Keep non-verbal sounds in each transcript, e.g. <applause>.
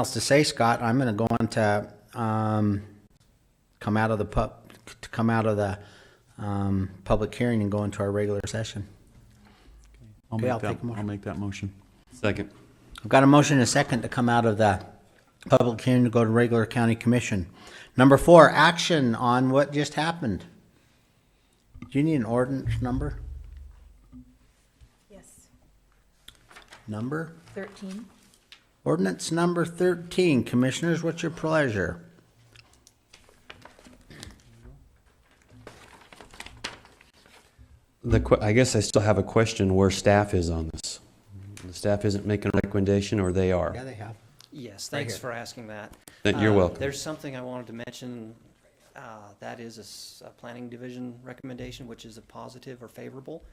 else to say, Scott. I'm going to go on to um, come out of the pub, to come out of the um, public hearing and go into our regular session. I'll Okay, I'll make take that, a motion. I'll make that motion. Second. I've got a motion and a second to come out of the public hearing to go to regular county commission. Number four, action on what just happened. Do you need an ordinance number? Yes, Number? 13. Ordinance number thirteen. Commissioners, what's your pleasure? The, que- I guess I still have a question where staff is on this. The staff isn't making a recommendation, or they Yeah, Uh, are? they have. Yes, thanks here. for asking that. Th- You're Um, welcome. There's something I wanted to mention, uh, that is a s- a planning division recommendation, which is a positive or favorable.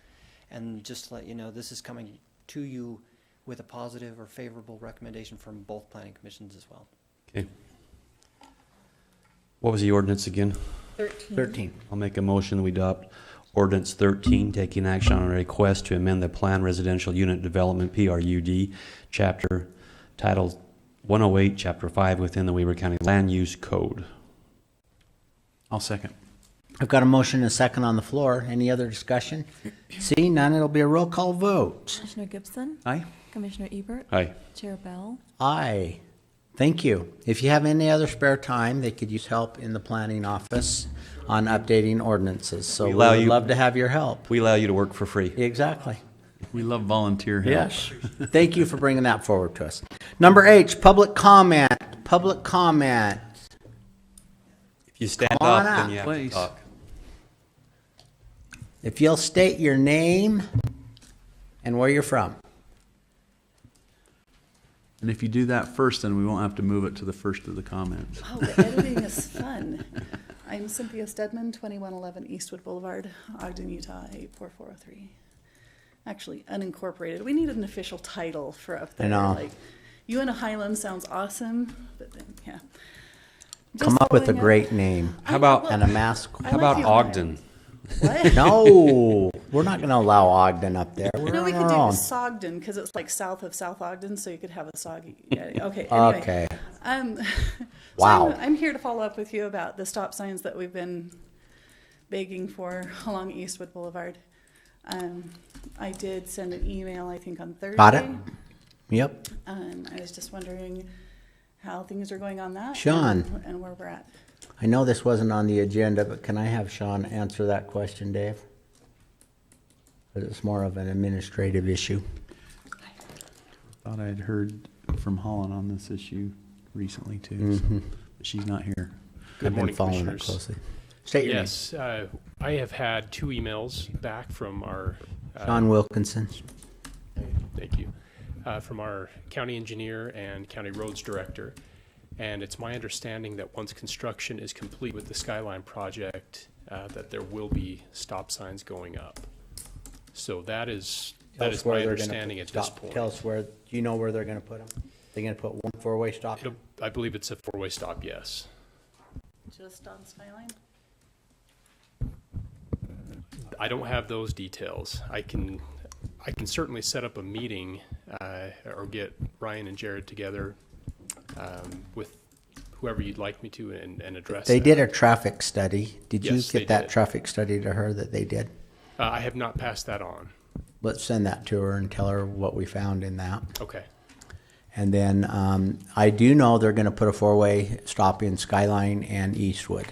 And just to let you know, this is coming to you with a positive or favorable recommendation from both planning commissions as well. Okay. What was the ordinance again? 13. Thirteen. I'll make a motion, we adopt ordinance thirteen, taking action on a request to amend the Plan Residential Unit Development, PRUD, chapter, title one oh eight, chapter five, within the Weaver County Land Use Code. I'll second. I've got a motion and a second on the floor. Any other discussion? See, none, it'll be a roll call vote. Commissioner Gibson, Aye? Commissioner Ebert, Aye. Chair Bell, Aye. Thank you. If you have any other spare time, they could use help in the planning office on updating ordinances. So We we allow would you- love to have your help. We allow you to work for free. Exactly. We love volunteer help. Yes. Thank you for bringing that forward to us. Number eight, public comment, public comment. If you stand Come on up, up, then you have to please. talk. If you'll state your name and where you're from. And if you do that first, then we won't have to move it to the first of the comments. Oh, the editing is fun. I'm Cynthia Stedman, 2111 Eastwood Boulevard, Ogden, Utah, 84403. Actually, unincorporated. We need an official title for up there. know. Like, Uinta Highland sounds awesome, but then, yeah. Just Come up with a following great name I- How about- well, and a mask. How I like about the Ohio. Ogden? <laughs> What? No, we're not going to allow Ogden up there. We're No, we on our could do own. Sogden, because it's like south of South Ogden, so you could have a soggy, yeah, <laughs> okay, anyway. Okay. Um, <laughs> so Wow. I'm, I'm here to follow up with you about the stop signs that we've been begging for <laughs> along Eastwood Boulevard. Um, I did send an email, I think, on Thursday. Got it? Yep. Um, I was just wondering how things are going on that. Sean. and- And where we're at. I know this wasn't on the agenda, but can I have Sean answer that question, Dave? 'Cause it's more of an administrative issue. Thought I'd heard from Holland on this issue recently too, Mm-hmm. so- but she's not here. I've been morning, following it Commissioners. closely. State your name. Yes, uh, I have had two emails back from our, uh, Sean Wilkinson. thank you, uh, from our county engineer and county roads director. And it's my understanding that once construction is complete with the Skyline project, uh, that there will be stop signs going up. So that is, that is my understanding at this point. Tell us where, do you know where they're going to put them? They're going to put one four-way stop? It'll- I believe it's a four-way stop, yes. Just on Skyline? I don't have those details. I can, I can certainly set up a meeting uh, or get Ryan and Jared together um, with whoever you'd like me to and, and address. They that. did a traffic study. Did you Yes, they get that did. traffic study to her that they did? Uh, I have not passed that on. Let's send that to her and tell her what we found in that. Okay. And then um, I do know they're going to put a four-way stop in Skyline and Eastwood,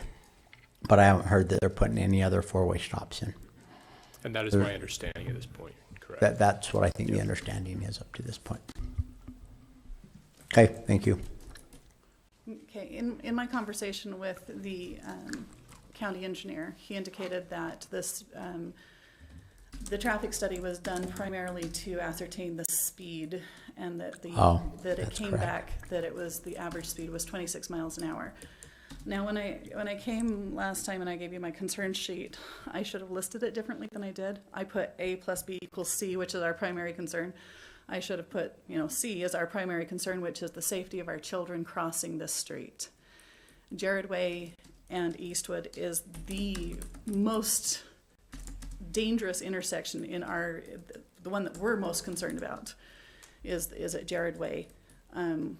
but I haven't heard that they're putting any other four-way stops in. And that is my understanding at this point, correct? That that's what I think the understanding is up to this point. Okay, thank you. Okay, in, in my conversation with the um, county engineer, he indicated that this, um, the traffic study was done primarily to ascertain the speed and that the, Oh, that it that's came correct. back, that it was, the average speed was twenty-six miles an hour. Now, when I, when I came last time and I gave you my concern sheet, I should have listed it differently than I did. I put A plus B equals C, which is our primary concern. I should have put, you know, C is our primary concern, which is the safety of our children crossing this street. Jared Way and Eastwood is the most dangerous intersection in our, the one that we're most concerned about is, is at Jared Way. Um,